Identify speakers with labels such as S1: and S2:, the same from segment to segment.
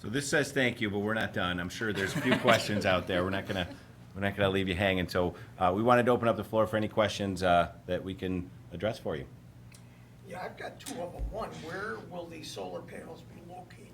S1: So this says thank you, but we're not done. I'm sure there's a few questions out there. We're not gonna, we're not gonna leave you hanging. So uh, we wanted to open up the floor for any questions uh, that we can address for you.
S2: Yeah, I've got two of them. One, where will these solar panels be located?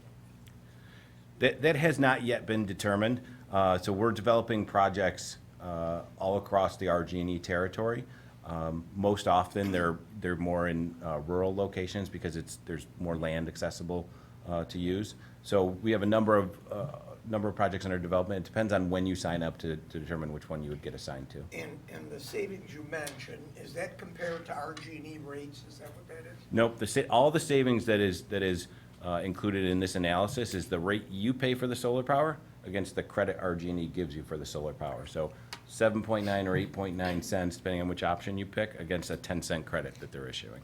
S1: That, that has not yet been determined. Uh, So we're developing projects uh, all across the RG&E E territory. Um, Most often, they're, they're more in uh, rural locations because it's, there's more land accessible uh, to use. So we have a number of, uh, number of projects under development. It depends on when you sign up to, to determine which one you would get assigned to.
S2: And, and the savings you mentioned, is that compared to RG&E E rates? Is that what that is?
S1: Nope, the, sa- all the savings that is, that is uh, included in this analysis is the rate you pay for the solar power against the credit RG&E E gives you for the solar power. So 7.9 or 8.9 cents, depending on which option you pick, against a 10 cent credit that they're issuing.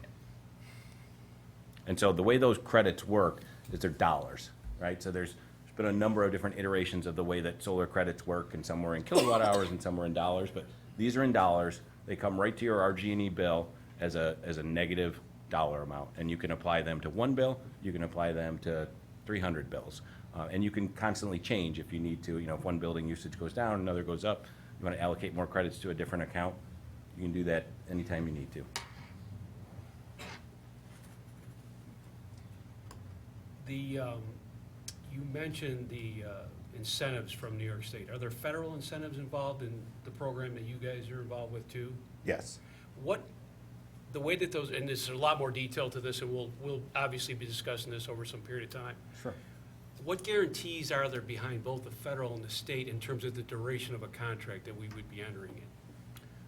S1: And so the way those credits work is they're dollars, right? So there's, there's been a number of different iterations of the way that solar credits work, and some were in kilowatt hours and some were in dollars, but these are in dollars. They come right to your RG&E bill as a, as a negative dollar amount, and you can apply them to one bill, you can apply them to 300 bills. Uh, and you can constantly change if you need to, you know, if one building usage goes down, another goes up, you want to allocate more credits to a different account, you can do that anytime you need to.
S3: The, um, you mentioned the uh, incentives from New York State. Are there federal incentives involved in the program that you guys are involved with too?
S1: Yes.
S3: What, the way that those, and there's a lot more detail to this, and we'll, we'll obviously be discussing this over some period of time.
S1: Sure.
S3: What guarantees are there behind both the federal and the state in terms of the duration of a contract that we would be entering in?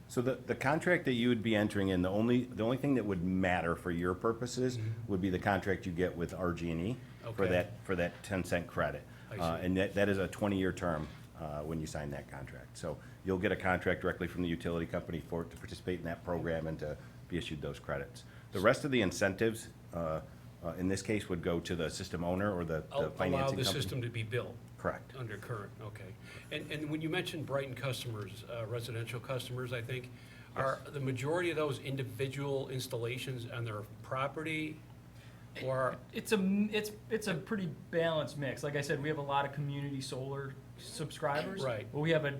S1: So the, the contract that you would be entering in, the only, the only thing that would matter for your purposes would be the contract you get with RG&E for
S3: Mm-hmm. Okay.
S1: that, for that 10 cent credit.
S3: I
S1: Uh,
S3: see.
S1: And that, that is a 20-year term uh, when you sign that contract. So you'll get a contract directly from the utility company for, to participate in that program and to be issued those credits. The rest of the incentives, uh, uh, in this case, would go to the system owner or the the
S3: Al-
S1: financing
S3: Allow
S1: company.
S3: the system to be built
S1: Correct.
S3: under current, okay. And, and when you mentioned Brighton customers, uh, residential customers, I think, are the majority of those individual installations on their property? Or,
S4: It's a m- it's it's a pretty balanced mix. Like I said, we have a lot of community solar subscribers.
S3: Right.
S4: But we have a,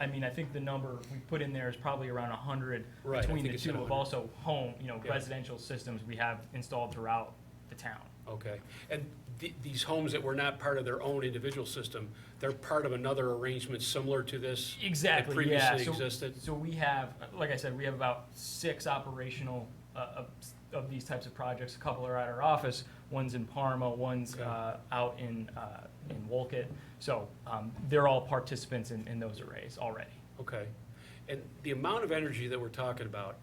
S4: I mean, I think the number we put in there is probably around hundred
S3: Right, I
S4: between
S3: think
S4: the
S3: it said
S4: two of
S3: 100.
S4: also home, you know,
S3: Yeah.
S4: residential systems we have installed throughout the town.
S3: okay, and th- these homes that were not part of their own individual system, they're part of another arrangement similar to this? That
S4: Exactly. Yeah.
S3: previously
S4: so,
S3: existed?
S4: so we have, like I said, we have about six operational uh, of, of these types of projects. A couple are at our office. One's in Parma. One's
S3: Okay.
S4: uh, out in uh, in Wolcott. So um, they're all participants in, in those arrays already.
S3: Okay. And the amount of energy that we're talking about,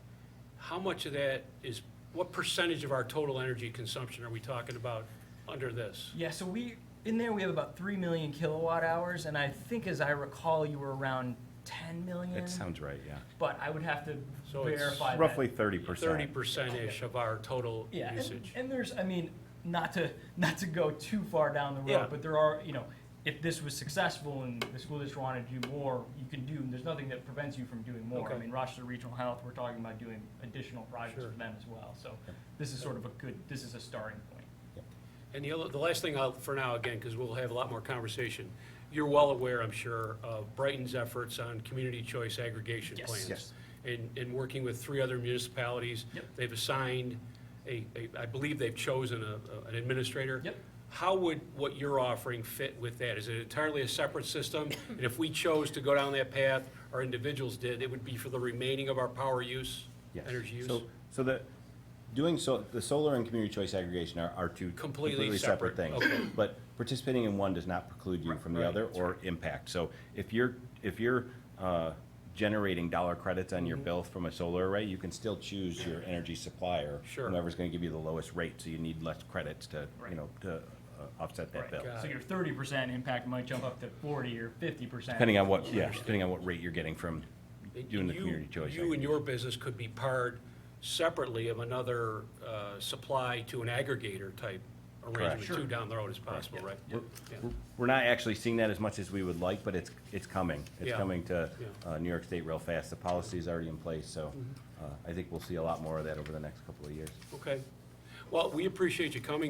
S3: how much of that is, what percentage of our total energy consumption are we talking about under this?
S4: Yeah. So we in there we have about three million kilowatt hours, and I think, as I recall, you were around ten million.
S1: That sounds right, yeah.
S4: But I would have to
S3: So it's
S4: verify. that.
S1: Roughly 30%.
S3: Thirty percent-ish of our total
S4: Yeah, and,
S3: usage.
S4: and there's, I mean, not to, not to go too far down the
S3: Yeah.
S4: road, but there are, you know, if this was successful and the school district wanted to do more, you can do, and there's nothing that prevents you from doing more. I
S3: Okay.
S4: mean, Rochester Regional Health, we're talking about doing additional projects
S3: Sure.
S4: for them as well, so this is sort of a good, this is a starting point.
S3: And the other, the last thing I'll, for now, again, because we'll have a lot more conversation, you're well aware, I'm sure, of Brighton's efforts on community choice aggregation
S4: Yes.
S3: plans.
S1: Yes.
S3: And, and working with three other municipalities.
S4: Yep.
S3: They've assigned a, a, I believe they've chosen a, a- an administrator.
S4: Yep.
S3: How would what you're offering fit with that? Is it entirely a separate system? And if we chose to go down that path, or individuals did, it would be for the remaining of our power use,
S1: Yes.
S3: energy use?
S1: So, so the, doing so, the solar and community choice aggregation are, are two
S3: Completely
S1: completely separate
S3: separate,
S1: things.
S3: okay.
S1: But participating in one does not preclude you from the
S3: Right,
S1: other or impact. So if you're, if you're, uh, generating dollar credits on your
S3: Mm-hmm.
S1: bill from a solar array, you can still choose your energy supplier.
S3: Sure.
S1: Whoever's gonna give you the lowest rate, so you need less credits to, you
S4: Right.
S1: know, to uh, offset that
S4: Right.
S1: bill.
S3: Got
S4: So
S3: it.
S4: your thirty percent impact might jump up to forty or fifty percent.
S1: Depending on what, yeah, depending on what rate you're getting from doing the
S3: You-
S1: community choice.
S3: You and
S1: aggregation.
S3: your business could be part separately of another uh, supply to an aggregator type arrangement
S1: Sure.
S3: too down the road as possible, right?
S1: We're-
S3: Yeah.
S1: we're- We're not actually seeing that as much as we would like, but it's, it's coming. It's
S3: Yeah.
S1: coming to
S3: Yeah.
S1: uh, New York State real fast. The policy is already in place, so
S3: Mm-hmm.
S1: uh, I think we'll see a lot more of that over the next couple of years.
S3: Okay. Well, we appreciate you coming